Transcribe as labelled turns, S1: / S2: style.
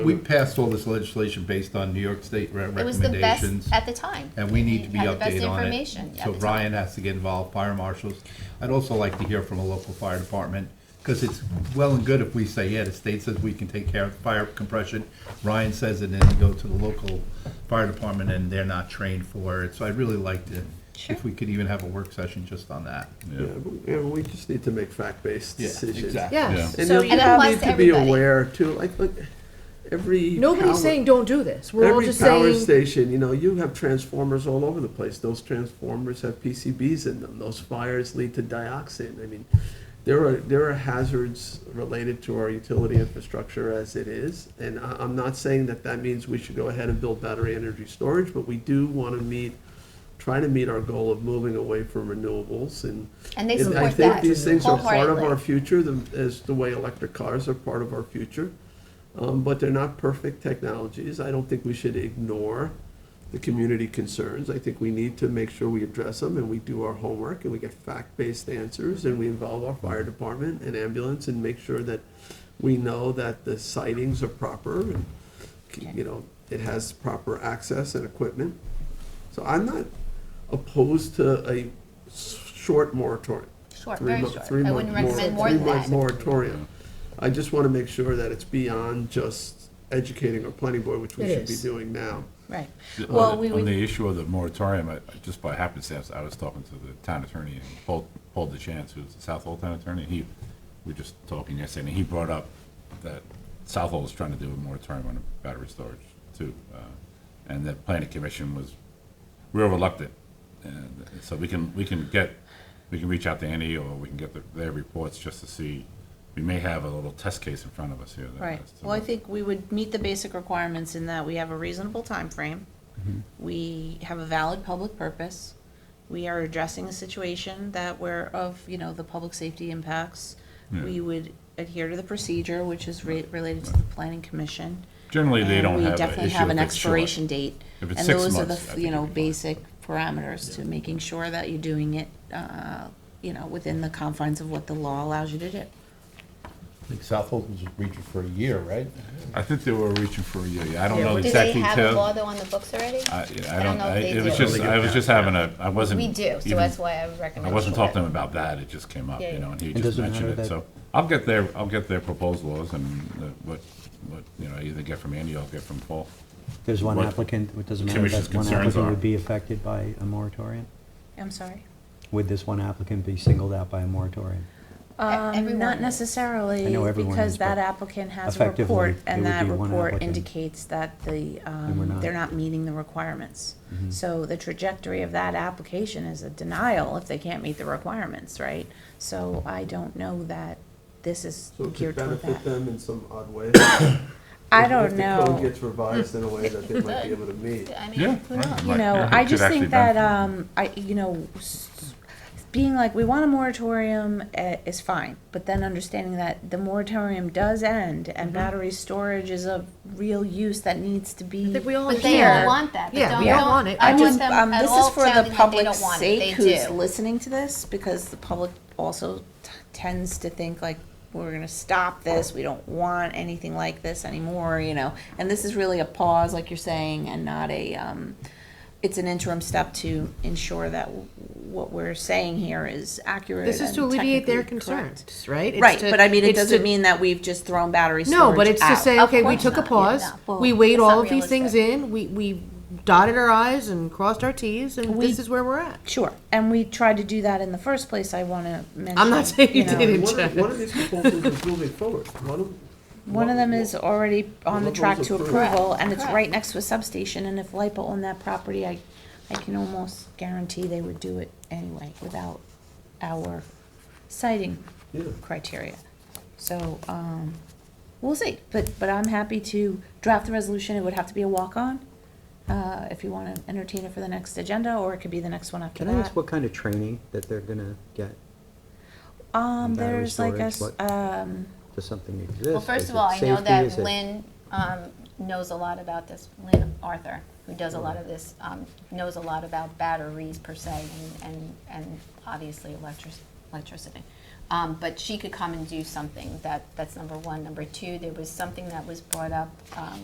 S1: We passed all this legislation based on New York State re-
S2: It was the best
S1: recommendations,
S2: at the time.
S1: and we need to be
S2: Had the best
S1: updated on it.
S2: information at
S1: So
S2: the time.
S1: Ryan has to get involved, fire marshals. I'd also like to hear from a local fire department, because it's well and good if we say, yeah, the state says we can take care of fire compression. Ryan says it, and then you go to the local fire department, and they're not trained for it. So I'd really like to,
S2: Sure.
S1: if we could even have a work session just on that.
S3: Yeah, but- yeah, we just need to make fact-based
S1: Yeah,
S3: decisions.
S1: exactly.
S4: Yes,
S3: And
S4: so
S3: you
S4: you
S2: And
S3: have
S2: apply
S4: have,
S3: need
S2: to
S3: to be
S2: everybody.
S3: aware too, like, look, every. power-
S4: nobody's saying don't do this, we're all
S3: Every
S4: just
S3: power
S4: saying,
S3: station, you know, you have transformers all over the place. Those transformers have PCBs in them. Those fires lead to dioxin. I mean, there are, there are hazards related to our utility infrastructure as it is. And I, I'm not saying that that means we should go ahead and build battery energy storage, but we do want to meet, try to meet our goal of moving away from renewables and
S2: And they
S3: and I
S2: support
S3: think
S2: that
S3: these things are part of our
S2: wholeheartedly.
S3: future, the- as the way electric cars are part of our future. Um, But they're not perfect technologies. I don't think we should ignore the community concerns. I think we need to make sure we address them and we do our homework and we get fact-based answers and we involve our fire department and ambulance and make sure that we know that the sightings are proper and, you know, it has proper access and equipment. So I'm not opposed to a s- short moratorium.
S2: Short,
S3: Three
S2: very
S3: mo-
S2: short.
S3: three
S2: I
S3: month
S2: wouldn't
S3: mor-
S2: recommend more than
S3: Three month
S2: that.
S3: moratorium. I just want to make sure that it's beyond just educating our planning board, which we
S4: It
S3: should be
S4: is.
S3: doing now.
S2: Right.
S5: The- on
S2: Well,
S5: the-
S2: we
S5: On
S2: would,
S5: the issue of the moratorium, I- I- just by happenstance, I was talking to the town attorney, and Paul, Paul DeChance, who's the Southall town attorney, he, we were just talking yesterday, and he brought up that Southall is trying to do a moratorium on battery storage, too. uh, And the planning commission was real reluctant. And so we can, we can get, we can reach out to Annie, or we can get the- their reports just to see, we may have a little test case in front of us here. that-
S6: Right,
S5: as to
S6: well, I
S5: what-
S6: think we would meet the basic requirements in that we have a reasonable time frame.
S5: Mm-hmm.
S6: We have a valid public purpose. We are addressing a situation that we're of, you know, the public safety impacts. We would adhere to the procedure, which is re- related to the planning commission.
S5: Generally, they
S6: and
S5: don't have
S6: We
S5: an
S6: definitely
S5: issue
S6: have an
S5: if it's short.
S6: expiration date.
S5: If it's
S6: And
S5: six
S6: those are the,
S5: months, I
S6: f-
S5: think
S6: you know,
S5: it'd be
S6: basic parameters to making sure that you're doing it, uh, you know, within the confines of what the law allows you to do.
S1: I think Southhold was reaching for a year, right?
S5: I think they were reaching for a year, yeah, I don't
S4: Yeah,
S5: know the
S2: do
S5: exact
S2: they
S5: details.
S2: have a law though on the books already?
S5: I, yeah,
S2: I
S5: I
S2: don't
S5: don't,
S2: know if
S5: I,
S2: they
S5: it was
S2: do.
S5: just, I was just having a, I wasn't.
S2: We do, so
S5: even-
S2: that's why I recommend.
S5: I wasn't
S2: short.
S5: talking to him about that, it just came up,
S2: Yeah,
S5: you know,
S2: yeah.
S5: and he
S7: It
S5: just
S7: doesn't
S5: mentioned
S7: matter
S5: it,
S7: that-
S5: so. I'll get their, I'll get their proposed laws and uh, what, what, you know, I either get from Andy or I'll get from Paul.
S7: There's one
S5: What
S7: applicant, it doesn't
S5: the
S7: matter,
S5: commission's
S7: that one
S5: concerns
S7: applicant
S5: are.
S7: would be affected by a moratorium?
S6: I'm sorry?
S7: Would this one applicant be singled out by a moratorium?
S6: Um,
S2: E-, everyone
S6: not
S2: is.
S6: necessarily,
S7: I know everyone
S6: because
S7: is, but
S6: that applicant has a
S7: effectively,
S6: report, and
S7: it would
S6: that
S7: be one
S6: report
S7: applicant.
S6: indicates that the,
S7: we're
S6: um,
S7: not. Mm-hmm.
S6: they're not meeting the requirements. So the trajectory of that application is a denial if they can't meet the requirements, right? So I don't know that this is
S3: So to
S6: geared toward
S3: benefit
S6: that.
S3: them in some odd way.
S6: I
S3: if-
S6: don't
S3: If the code
S6: know,
S3: gets revised in a way that they might be able to meet.
S2: I
S5: Yeah,
S2: mean, who
S5: right,
S2: knows?
S6: you
S5: Right, yeah,
S6: know,
S5: it
S6: I
S5: could
S6: just
S5: actually
S6: think that,
S5: benefit.
S6: um, I, you know, s- being like, we want a moratorium eh, is fine, but then understanding that the moratorium does end and battery storage is a real use that needs to
S4: I
S6: be.
S4: think we all
S2: But they all
S4: hear,
S2: want that. They
S4: Yeah,
S2: don't-
S4: we all
S2: don't-
S4: want it.
S2: I
S4: I
S2: want
S4: just-
S2: them
S6: um,
S2: at
S6: this
S2: all
S6: is for the
S2: counting that they
S6: public's
S2: don't want it. They
S6: sake who's
S2: do.
S6: listening to this, because the public also t- tends to think like, we're gonna stop this, we don't want anything like this anymore, you know? And this is really a pause, like you're saying, and not a, um, it's an interim step to ensure that w- what we're saying here is accurate
S4: this is to
S6: and
S4: alleviate their
S6: technically correct.
S4: concerns, right? It's
S6: Right,
S4: to-
S6: but I mean, it
S4: it's to-
S6: doesn't mean that we've just thrown battery storage
S4: No, but it's to
S6: out.
S4: say,
S2: Of
S4: okay, we
S2: course
S4: took a
S2: not, yeah, no.
S4: pause,
S6: Well,
S4: we weighed
S2: it's
S4: all
S2: not
S4: of these things
S2: realistic.
S4: in, we, we dotted our i's and crossed our t's, and
S6: We-
S4: this is where we're at.
S6: Sure, and we tried to do that in the first place, I wanna mention.
S4: I'm not saying you
S6: know,
S4: did it,
S3: One of,
S4: Jen.
S3: one of these proposals is moving forward. One of.
S6: One of them is already on the
S3: Renewables
S6: track to
S3: approved.
S6: approval, and it's
S2: Correct.
S6: right next to a substation, and if LIPA owned that property, I, I can almost guarantee they would do it anyway without our citing
S3: Yeah.
S6: criteria. So, um, we'll see, but, but I'm happy to draft the resolution, it would have to be a walk-on, uh, if you wanna entertain it for the next agenda, or it could be the next one after
S7: Can
S6: that.
S7: I
S2: Uh,
S7: ask what kind of training that they're gonna get?
S6: Um,
S7: and battery
S6: there's like a,
S7: storage,
S6: s-
S7: what-
S6: um,
S7: Does something exist?
S2: Well,
S7: Is
S2: first of
S7: it
S2: all, I know
S7: safety? Is
S2: that
S7: it-
S2: Lynn um, knows a lot about this, Lynn Arthur, who does a lot of this, um, knows a lot about batteries per se and, and, and obviously electric, electricity. Um, but she could come and do something, that, that's number one. Number two, there was something that was brought up, um,